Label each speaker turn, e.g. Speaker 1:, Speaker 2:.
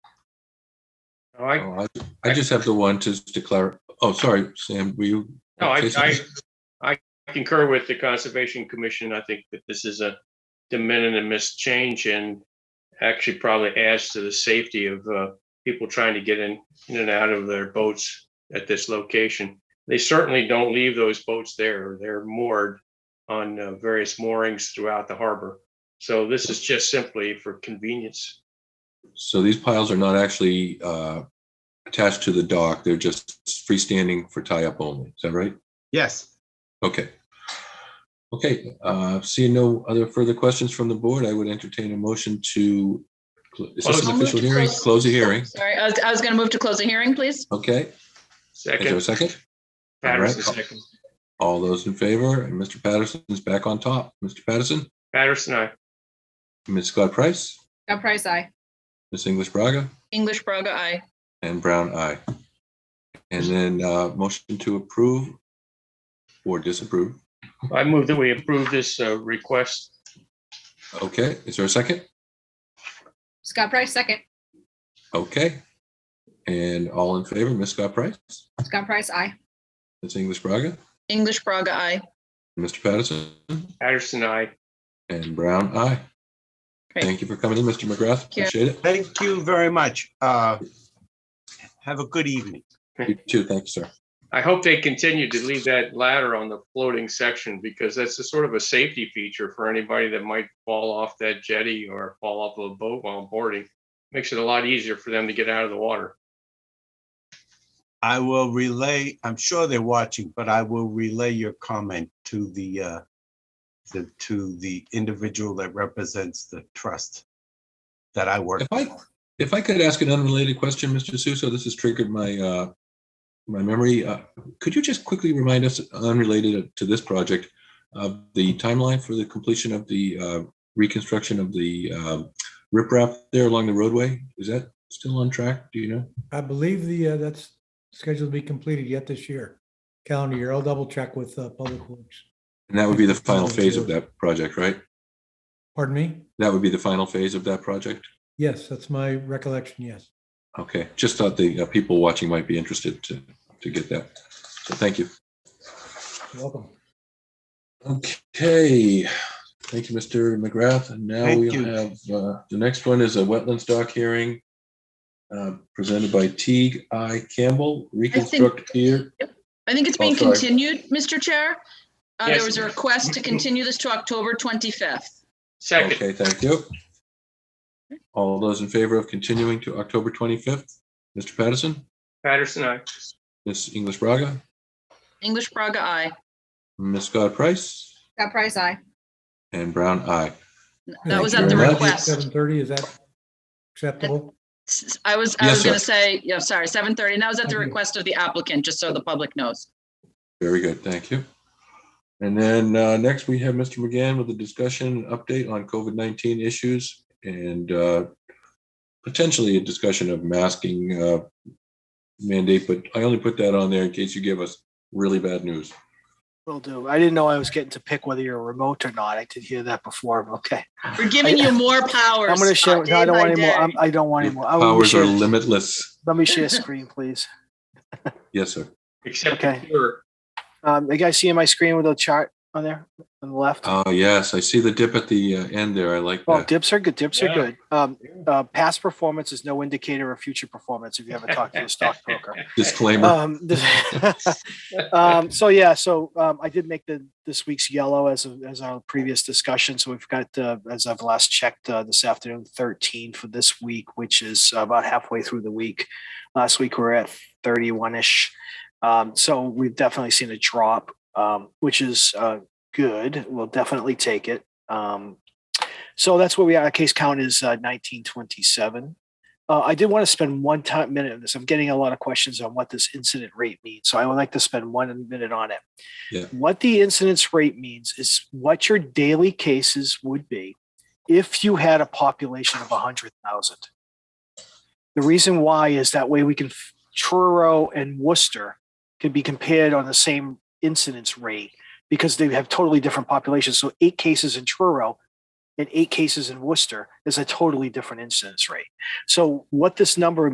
Speaker 1: No, I,
Speaker 2: Oh, I I just have the one to declare, oh, sorry, Sam, were you?
Speaker 1: no, I,
Speaker 2: Jason?
Speaker 1: I, I concur with the Conservation Commission. I think that this is a de minimis change and actually probably adds to the safety of, uh, people trying to get in, in and out of their boats at this location. They certainly don't leave those boats there. They're moored on uh, various moorings throughout the harbor. So this is just simply for convenience.
Speaker 2: So these piles are not actually uh, attached to the dock, they're just freestanding for tie-up only, is that right?
Speaker 3: Yes.
Speaker 2: Okay. Okay, uh, seeing no other further questions from the board, I would entertain a motion to, is this
Speaker 1: Close.
Speaker 2: an
Speaker 4: I'll move
Speaker 2: official
Speaker 4: to
Speaker 2: hearing?
Speaker 4: close. Oh,
Speaker 2: Close the hearing,
Speaker 4: Sorry, I was, I was going to move to close the hearing, please.
Speaker 2: okay? Is there
Speaker 1: Second,
Speaker 2: a second?
Speaker 1: Patterson,
Speaker 2: All right.
Speaker 1: second.
Speaker 2: All those in favor, and Mr. Patterson's back on top. Mr. Patterson,
Speaker 1: Patterson, aye.
Speaker 2: Ms. Scott Price,
Speaker 4: Scott Price, aye.
Speaker 2: Ms. English Braga,
Speaker 4: English Braga, aye.
Speaker 2: and Brown, aye. And then uh, motion to approve or disapprove.
Speaker 1: I move that we approve this uh, request.
Speaker 2: Okay, is there a second?
Speaker 4: Scott Price, second.
Speaker 2: Okay. And all in favor, Ms. Scott Price,
Speaker 4: Scott Price, aye.
Speaker 2: Ms. English Braga,
Speaker 4: English Braga, aye.
Speaker 2: Mr. Patterson,
Speaker 1: Patterson, aye.
Speaker 2: and Brown, aye.
Speaker 4: Great.
Speaker 2: Thank you for coming in, Mr. McGrath.
Speaker 4: you.
Speaker 2: Appreciate it.
Speaker 3: Thank you very much. Uh, Have a good evening.
Speaker 2: You too. Thank you, sir.
Speaker 1: I hope they continue to leave that ladder on the floating section because that's a sort of a safety feature for anybody that might fall off that jetty or fall off of a boat while boarding. Makes it a lot easier for them to get out of the water.
Speaker 3: I will relay, I'm sure they're watching, but I will relay your comment to the, uh, the- to the individual that represents the trust that I work.
Speaker 2: If I, if I could ask an unrelated question, Mr. Suso, this has triggered my, uh, my memory. Uh, Could you just quickly remind us, unrelated to this project, of the timeline for the completion of the uh, reconstruction of the um, riprap there along the roadway? Is that still on track? Do you know?
Speaker 5: I believe the, uh, that's scheduled to be completed yet this year, calendar year. I'll double check with, uh, Public Works.
Speaker 2: And that would be the final phase of that project, right?
Speaker 5: Pardon me?
Speaker 2: That would be the final phase of that project?
Speaker 5: Yes, that's my recollection, yes.
Speaker 2: Okay, just thought the uh, people watching might be interested to, to get that. So thank you.
Speaker 5: Welcome.
Speaker 2: Okay, thank you, Mr. McGrath. And now
Speaker 3: Thank
Speaker 2: we
Speaker 3: you.
Speaker 2: have, uh, the next one is a wetlands dock hearing uh, presented by Teague I Campbell, reconstruct here.
Speaker 4: I think it's being
Speaker 2: Oh, sorry.
Speaker 4: continued, Mr. Chair. Uh,
Speaker 1: Yes.
Speaker 4: There was a request to continue this to October 25th.
Speaker 1: Second,
Speaker 2: Okay, thank you. All those in favor of continuing to October 25th? Mr. Patterson,
Speaker 1: Patterson, aye.
Speaker 2: Ms. English Braga,
Speaker 4: English Braga, aye.
Speaker 2: Ms. Scott Price,
Speaker 4: Scott Price, aye.
Speaker 2: and Brown, aye.
Speaker 4: That was
Speaker 2: Thank
Speaker 4: at the
Speaker 2: you very much.
Speaker 4: request.
Speaker 5: Seven thirty, is that acceptable?
Speaker 4: S- I was, I
Speaker 2: Yes,
Speaker 4: was going to
Speaker 2: sir.
Speaker 4: say, yeah, sorry, 7:30, and that was at the
Speaker 6: Mm-hmm.
Speaker 5: Okay.
Speaker 4: request of the applicant, just so the public knows.
Speaker 2: Very good, thank you. And then uh, next, we have Mr. McGann with a discussion and update on COVID-19 issues and uh, potentially a discussion of masking uh, mandate, but I only put that on there in case you give us really bad news.
Speaker 6: Will do. I didn't know I was getting to pick whether you're remote or not. I did hear that before. but Okay.
Speaker 4: We're giving you more powers.
Speaker 6: I'm gonna share.
Speaker 4: uh,
Speaker 6: No, I
Speaker 4: day
Speaker 6: don't
Speaker 4: by
Speaker 6: want any more.
Speaker 4: day.
Speaker 6: I'm, I don't want any more. I will
Speaker 2: Powers are
Speaker 6: share,
Speaker 2: limitless.
Speaker 6: let me share screen, please.
Speaker 2: Yes, sir.
Speaker 1: Except
Speaker 6: Okay.
Speaker 1: you're,
Speaker 6: Um, you guys see my screen with a chart on there on the left?
Speaker 2: Oh, yes, I see the dip at the uh, end there. I like
Speaker 6: Well,
Speaker 2: that.
Speaker 6: dips are good. Dips
Speaker 1: Yeah.
Speaker 6: are good. Um, uh, past performance is no indicator of future performance. If you ever talk to a stockbroker.
Speaker 2: Disclaimer.
Speaker 6: Um, this- um, so yeah, so um, I did make the this week's yellow as of, as our previous discussion. So we've got uh, as I've last checked uh, this afternoon, thirteen for this week, which is about halfway through the week. Last week we were at thirty one ish. Um, so we've definitely seen a drop, um, which is uh, good. We'll definitely take it. Um, so that's where we are. Our case count is uh, nineteen twenty seven. Uh, I did want to spend one time minute on this. I'm getting a lot of questions on what this incident rate means, so I would like to spend one minute on it.
Speaker 2: Yeah.
Speaker 6: What the incidence rate means is what your daily cases would be if you had a population of 100,000. The reason why is that way we can f- Truro and Worcester can be compared on the same incidence rate because they have totally different populations. So eight cases in Truro and eight cases in Worcester is a totally different incidence rate. So what this number